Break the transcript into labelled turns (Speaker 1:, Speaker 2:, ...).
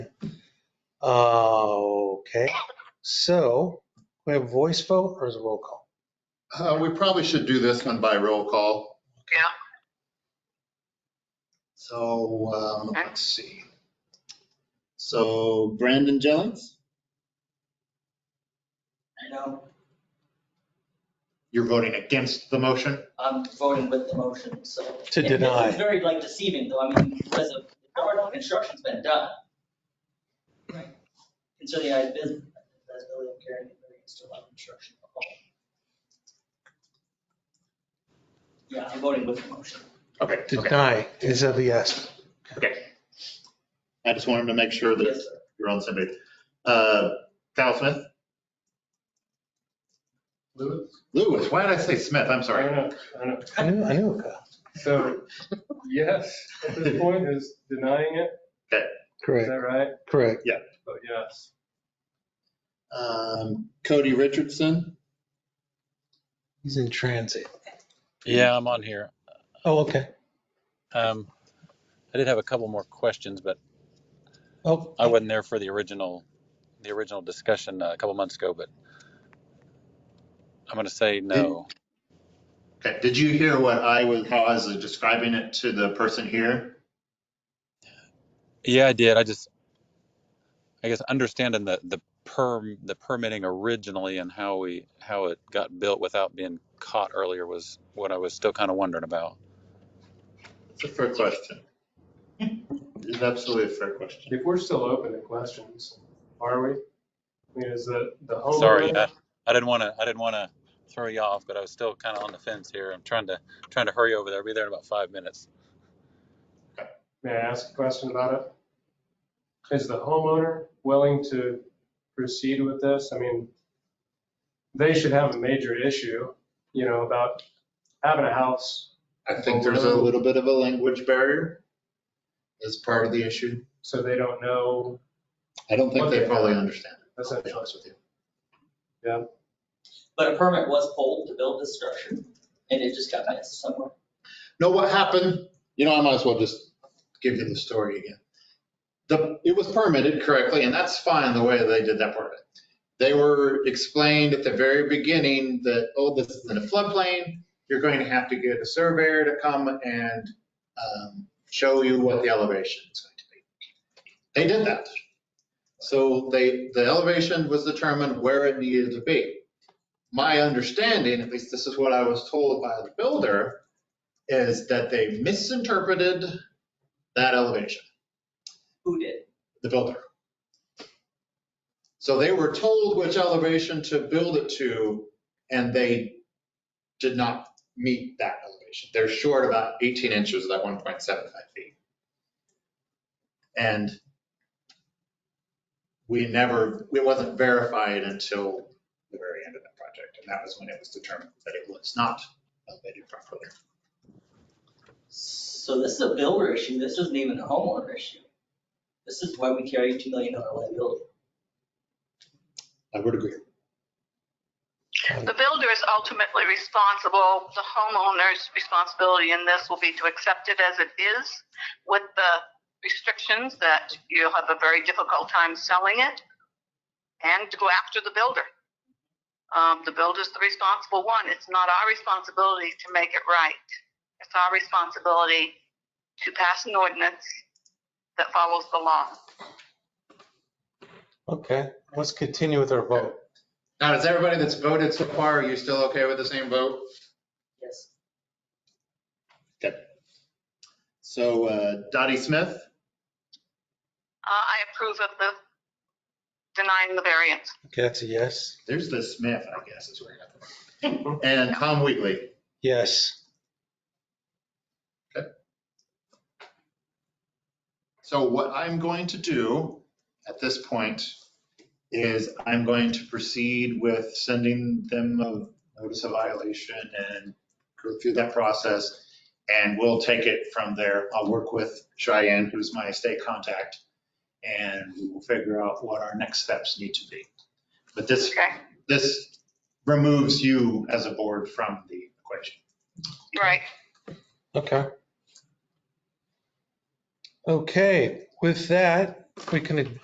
Speaker 1: Okay, so we have voice vote or is it roll call?
Speaker 2: Uh, We probably should do this one by roll call.
Speaker 3: Yeah.
Speaker 2: So, um,
Speaker 3: Okay.
Speaker 1: Let's see.
Speaker 2: so Brandon Jennings,
Speaker 4: No,
Speaker 2: you're voting against the motion?
Speaker 4: I'm voting with the motion, so.
Speaker 1: To
Speaker 4: It- It's
Speaker 1: deny.
Speaker 4: very like deceiving though, I mean, because of, the order of construction's been done. Right. And so the idea is, that's really carrying the variance to allow construction. of all. Yeah, I'm voting with the motion.
Speaker 2: Okay, okay.
Speaker 1: Deny is a yes.
Speaker 2: I just wanted to make sure
Speaker 4: Yes,
Speaker 2: that
Speaker 4: sir.
Speaker 2: you're on the same page. Uh, Kyle Smith?
Speaker 5: Lewis?
Speaker 2: Lewis, why did I say Smith? I'm
Speaker 5: I
Speaker 2: sorry.
Speaker 5: know, I know.
Speaker 1: I knew, I knew it. Kyle.
Speaker 5: So, yes, at this point is denying it, is
Speaker 1: Correct,
Speaker 5: that right?
Speaker 1: correct.
Speaker 5: But yes.
Speaker 2: Um, Cody Richardson?
Speaker 1: He's in transit.
Speaker 6: Yeah, I'm on here.
Speaker 1: Oh, okay.
Speaker 6: Um, I did have a couple more questions, but
Speaker 1: Oh,
Speaker 6: I wasn't there for the original, the original discussion uh, a couple months ago, but I'm going to say no.
Speaker 2: Okay, did you hear what I was, how I was describing it to the person here?
Speaker 6: Yeah, I did. I just, I guess understanding the, the perm, the permitting originally and how we, how it got built without being caught earlier was what I was still kind of wondering about.
Speaker 2: It's a fair question. It's absolutely a fair question.
Speaker 5: If we're still open to questions, are we? I mean, is the, the homeowner?
Speaker 6: Sorry, I, I didn't want to, I didn't want to throw you off, but I was still kind of on the fence here. I'm trying to, trying to hurry over there. I'll be there in about five minutes.
Speaker 5: May I ask a question about it? Is the homeowner willing to proceed with this? I mean, they should have a major issue, you know, about having a house.
Speaker 2: I think there's a little bit of a language barrier as part of the issue.
Speaker 5: So they don't know,
Speaker 2: I don't think they fully understand. it, I'll be
Speaker 5: essentially,
Speaker 2: honest with you.
Speaker 4: But a permit was pulled to build this structure, and it just got missed somewhere.
Speaker 2: No, what happened, you know, I might as well just give you the story again. The, it was permitted correctly, and that's fine the way they did that part of it. They were explained at the very beginning that, oh, this is in a floodplain, you're going to have to get a surveyor to come and um, show you what the elevation is going to be. They did that. So they, the elevation was determined where it needed to be. My understanding, at least this is what I was told by the builder, is that they misinterpreted that elevation,
Speaker 4: Who did?
Speaker 2: the builder. So they were told which elevation to build it to, and they did not meet that elevation. They're short about 18 inches of that 1.75 feet. And we never, it wasn't verified until the very end of that project, and that was when it was determined that it was not elevated properly.
Speaker 4: So this is a builder issue, this isn't even a homeowner issue. This is why we carry a $2 million liability.
Speaker 2: I would agree.
Speaker 3: The builder is ultimately responsible, the homeowner's responsibility in this will be to accept it as it is with the restrictions that you'll have a very difficult time selling it and to go after the builder. Um, the builder's the responsible one. It's not our responsibility to make it right. It's our responsibility to pass an ordinance that follows the law.
Speaker 1: okay. Let's continue with our vote.
Speaker 2: Now, is everybody that's voted so far, are you still okay with the same vote?
Speaker 4: Yes.
Speaker 2: So uh, Dottie Smith,
Speaker 3: Uh, I approve of the denying the variance.
Speaker 1: Okay, that's a yes.
Speaker 2: there's the Smith, I guess is where I got the wrong. And Tom Wheatley.
Speaker 1: Yes.
Speaker 2: So what I'm going to do at this point is I'm going to proceed with sending them a notice of violation and go through that process. And we'll take it from there. I'll work with Cheyenne, who's my state contact, and we will figure out what our next steps need to be. But this,
Speaker 3: Okay,
Speaker 2: this removes you as a board from the equation.
Speaker 3: right.
Speaker 1: Okay. Okay, with that, we can